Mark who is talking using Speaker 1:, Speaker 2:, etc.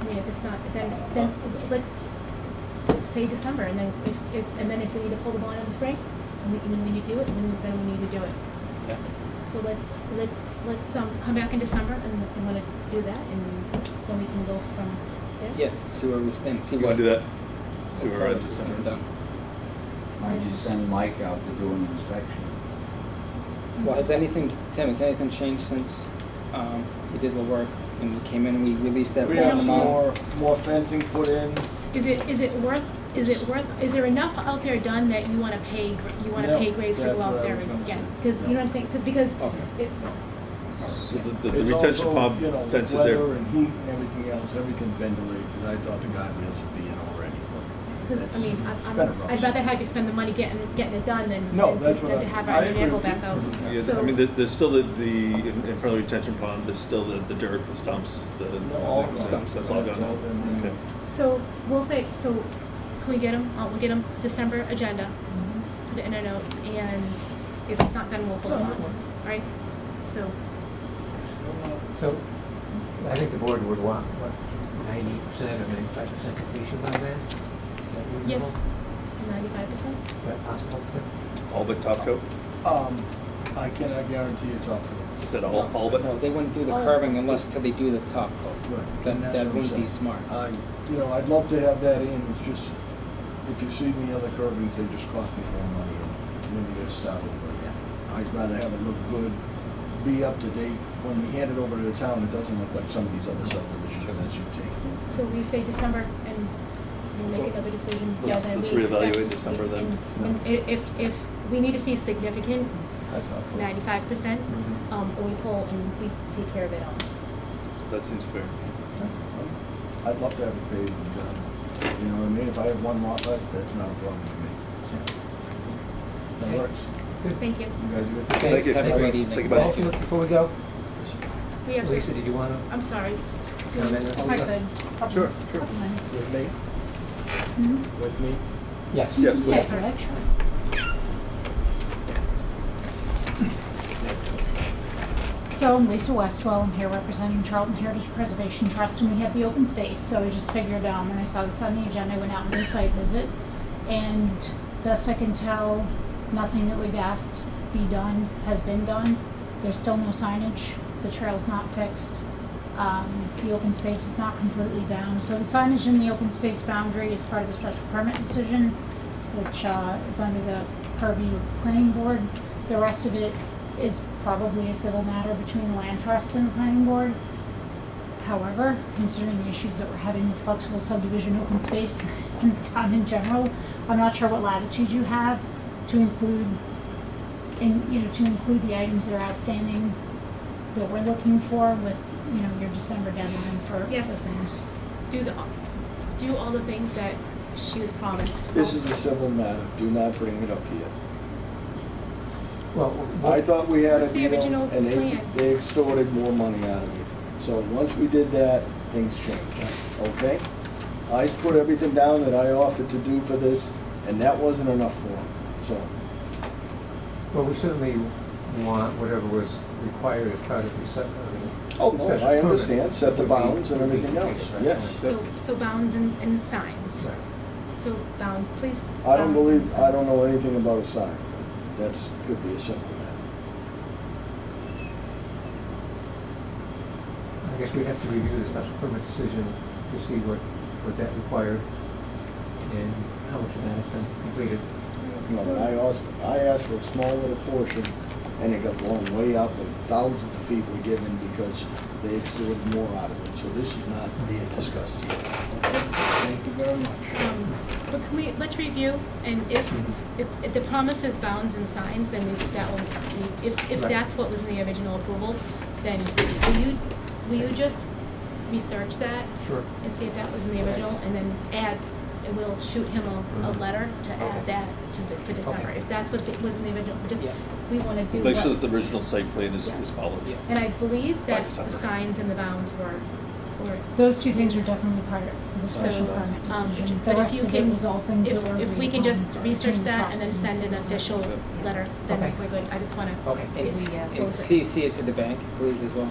Speaker 1: I mean, if it's not, then, then let's say December, and then if, if, and then if we need to pull the bond in the spring, and we, and we need to do it, then, then we need to do it.
Speaker 2: Yeah.
Speaker 1: So let's, let's, let's, um, come back in December, and if we wanna do that, and then we can go from there.
Speaker 2: Yeah, see where we stand, see
Speaker 3: You
Speaker 2: what.
Speaker 3: wanna do that? See where we're at
Speaker 2: what
Speaker 3: this
Speaker 2: we've
Speaker 3: time.
Speaker 2: done.
Speaker 4: Why don't you send Mike out to do an inspection?
Speaker 2: Well, has anything, Tim, has anything changed since, um, we did the work, when we came in, we released that
Speaker 5: We
Speaker 2: bond
Speaker 5: have
Speaker 2: amount?
Speaker 5: some more, more fencing put in.
Speaker 1: Is it, is it worth, is it worth, is there enough out there done that you wanna pay, gr- you wanna
Speaker 5: No,
Speaker 1: pay Graves to
Speaker 5: that's
Speaker 1: go out
Speaker 5: what I
Speaker 1: there
Speaker 5: was
Speaker 1: and
Speaker 5: gonna
Speaker 1: get?
Speaker 5: say.
Speaker 1: Cause, you know what I'm saying, 'Cause- because
Speaker 2: Okay.
Speaker 1: it,
Speaker 3: So the, the, the
Speaker 5: It's
Speaker 3: retention
Speaker 5: also,
Speaker 3: pond
Speaker 5: you know,
Speaker 3: fence is there.
Speaker 5: Weather and heat and everything else, everything's been delayed, because I thought the guardrails would be in already.
Speaker 1: Cause, I mean, I'm-
Speaker 5: It's been a
Speaker 1: I'm,
Speaker 5: rough
Speaker 1: I'd rather
Speaker 5: summer.
Speaker 1: have you spend the money getting, getting it done than,
Speaker 5: No,
Speaker 1: than
Speaker 5: that's
Speaker 1: to-
Speaker 5: what
Speaker 1: than
Speaker 5: I-
Speaker 1: to have
Speaker 5: I
Speaker 1: our
Speaker 5: agree
Speaker 1: vehicle
Speaker 5: with you.
Speaker 1: back out.
Speaker 3: Yeah,
Speaker 1: So-
Speaker 3: I mean, there- there's still the, the, in in front of the retention pond, there's still the, the dirt, the stumps, the,
Speaker 5: all
Speaker 3: the
Speaker 5: gone.
Speaker 3: stumps, that's all
Speaker 5: That's
Speaker 3: gone.
Speaker 5: all been-
Speaker 3: Okay.
Speaker 1: So, we'll say, so, can we get them, uh, we'll get them December agenda,
Speaker 5: Mm-hmm.
Speaker 1: put it in our notes, and if it's not done, we'll pull it
Speaker 5: No,
Speaker 1: on,
Speaker 5: no.
Speaker 1: right? So,
Speaker 6: So, I think the board would want, what, ninety percent or ninety-five percent completion by then? Is that
Speaker 1: yes,
Speaker 6: reasonable?
Speaker 1: ninety-five percent?
Speaker 6: Is that possible?
Speaker 3: All but top coat?
Speaker 5: Um, I cannot guarantee you top coat.
Speaker 3: Is that all, all but?
Speaker 2: No, they wouldn't do the
Speaker 1: Oh.
Speaker 2: curving unless till they do the top coat.
Speaker 5: Right,
Speaker 2: That,
Speaker 5: and that's
Speaker 2: that
Speaker 5: what Uh, I'm
Speaker 2: wouldn't be
Speaker 5: saying.
Speaker 2: smart.
Speaker 5: I, you know, I'd love to have that in, it's just, if you see the other curvings, they just cost me more money, and then you gotta start over again. I'd rather have it look good, be up to date, when we hand it over to the town, it doesn't look like some of these other subdivisions, and that's your take.
Speaker 1: So we say December and we'll make another decision.
Speaker 3: Let's-
Speaker 1: Yeah, then
Speaker 3: let's
Speaker 1: we expect-
Speaker 3: reevaluate December then.
Speaker 1: and- And i- if, if, we need to see significant
Speaker 5: That's not fair.
Speaker 1: ninety-five percent,
Speaker 5: Mm-hmm.
Speaker 1: um, or we pull and we take care of it all.
Speaker 3: So That seems fair.
Speaker 5: I'd love to have it paved and done. You know what I mean? If I have one lot left, that's not a problem to me. That works.
Speaker 1: Thank you.
Speaker 5: You guys good?
Speaker 3: Thank
Speaker 2: Thanks,
Speaker 3: you.
Speaker 2: have a great evening.
Speaker 3: Think about it.
Speaker 6: Well, Before we go,
Speaker 1: We have
Speaker 6: Lisa,
Speaker 1: to,
Speaker 6: did you want to?
Speaker 1: I'm sorry.
Speaker 6: Comment on
Speaker 1: I
Speaker 6: that?
Speaker 1: could.
Speaker 3: Sure, sure.
Speaker 7: Couple minutes.
Speaker 5: With me?
Speaker 7: Mhm.
Speaker 5: With me?
Speaker 6: Yes.
Speaker 3: Yes, please.
Speaker 7: Yeah, correct, sure. So I'm Lisa Westwell, I'm here representing Charlton Heritage Preservation Trust, and we have the open space, so I just figured, um, when I saw this on the agenda, I went out and did a site visit. And best I can tell, nothing that we've asked be done has been done. There's still no signage, the trail's not fixed, um, the open space is not completely down. So the signage in the open space boundary is part of the special permit decision, which, uh, is under the purview of the planning board. The rest of it is probably a civil matter between the land trust and the planning board. However, considering the issues that we're having with flexible subdivision open space in the town in general, I'm not sure what latitude you have to include, in, you know, to include the items that are outstanding that we're looking for with, you know, your December deadline for for
Speaker 1: Yes.
Speaker 7: things.
Speaker 1: Do the, do all the things that she was promised.
Speaker 5: This is a civil matter. Do not bring it up here.
Speaker 6: Well,
Speaker 5: I
Speaker 6: what-
Speaker 5: thought we had a
Speaker 1: What's the
Speaker 5: deal,
Speaker 1: original
Speaker 5: and they,
Speaker 1: plan?
Speaker 5: they extorted more money out of me. So once we did that, things changed, okay? I put everything down that I offered to do for this, and that wasn't enough for them, so.
Speaker 6: well, we certainly want whatever was required as part of the sub- of the
Speaker 5: Oh, no,
Speaker 6: special
Speaker 5: I
Speaker 6: permit
Speaker 5: understand, set the
Speaker 6: would be-
Speaker 5: bounds and
Speaker 6: would be
Speaker 5: everything else,
Speaker 6: completed, right?
Speaker 5: yes.
Speaker 1: So, so bounds and, and signs.
Speaker 6: Right.
Speaker 1: So bounds, please.
Speaker 5: I don't
Speaker 1: bounds and
Speaker 5: believe, I don't know anything about a sign. That's, could be a simple matter.
Speaker 6: I guess we have to review the special permit decision to see what, what that required and how much of that has been completed.
Speaker 5: No, but I asked, I asked for a small little portion, and it got blown way up, and thousands of feet were given because they extorted more out of it. So this is not being discussed here. Thank you very much.
Speaker 1: Um, But can we, let's review, and if, if, if the promise is bounds and signs, then we, that will, we- if, if
Speaker 6: Right.
Speaker 1: that's what was in the original approval, then will you, will you just research that
Speaker 6: Sure.
Speaker 1: and see if that was in the original, and then add, and we'll shoot him a, a
Speaker 6: Mhm.
Speaker 1: letter to add
Speaker 6: Okay.
Speaker 1: that to, the- for December,
Speaker 6: Okay.
Speaker 1: if that's what the- was in the original, just,
Speaker 2: Yeah.
Speaker 1: we wanna do what.
Speaker 3: Make sure that the original site plan is, is followed.
Speaker 2: Yeah.
Speaker 1: And I believe
Speaker 3: By
Speaker 1: that the
Speaker 3: December.
Speaker 1: signs and the bounds were, were
Speaker 7: Those two things are definitely part of the special
Speaker 5: So,
Speaker 7: permit
Speaker 1: Um,
Speaker 7: decision. The
Speaker 1: But if
Speaker 7: rest
Speaker 1: you
Speaker 7: of it
Speaker 1: can,
Speaker 7: was all things that were
Speaker 1: if, if we can
Speaker 7: agreed
Speaker 1: just
Speaker 7: upon
Speaker 1: research
Speaker 7: between the
Speaker 1: that and then
Speaker 7: trust
Speaker 1: send an official letter,
Speaker 6: Okay.
Speaker 1: then we're good. I just wanna.
Speaker 6: Okay.
Speaker 2: And
Speaker 1: it's
Speaker 2: s-
Speaker 1: uh, closer.
Speaker 2: and CC it to the bank, please, as well.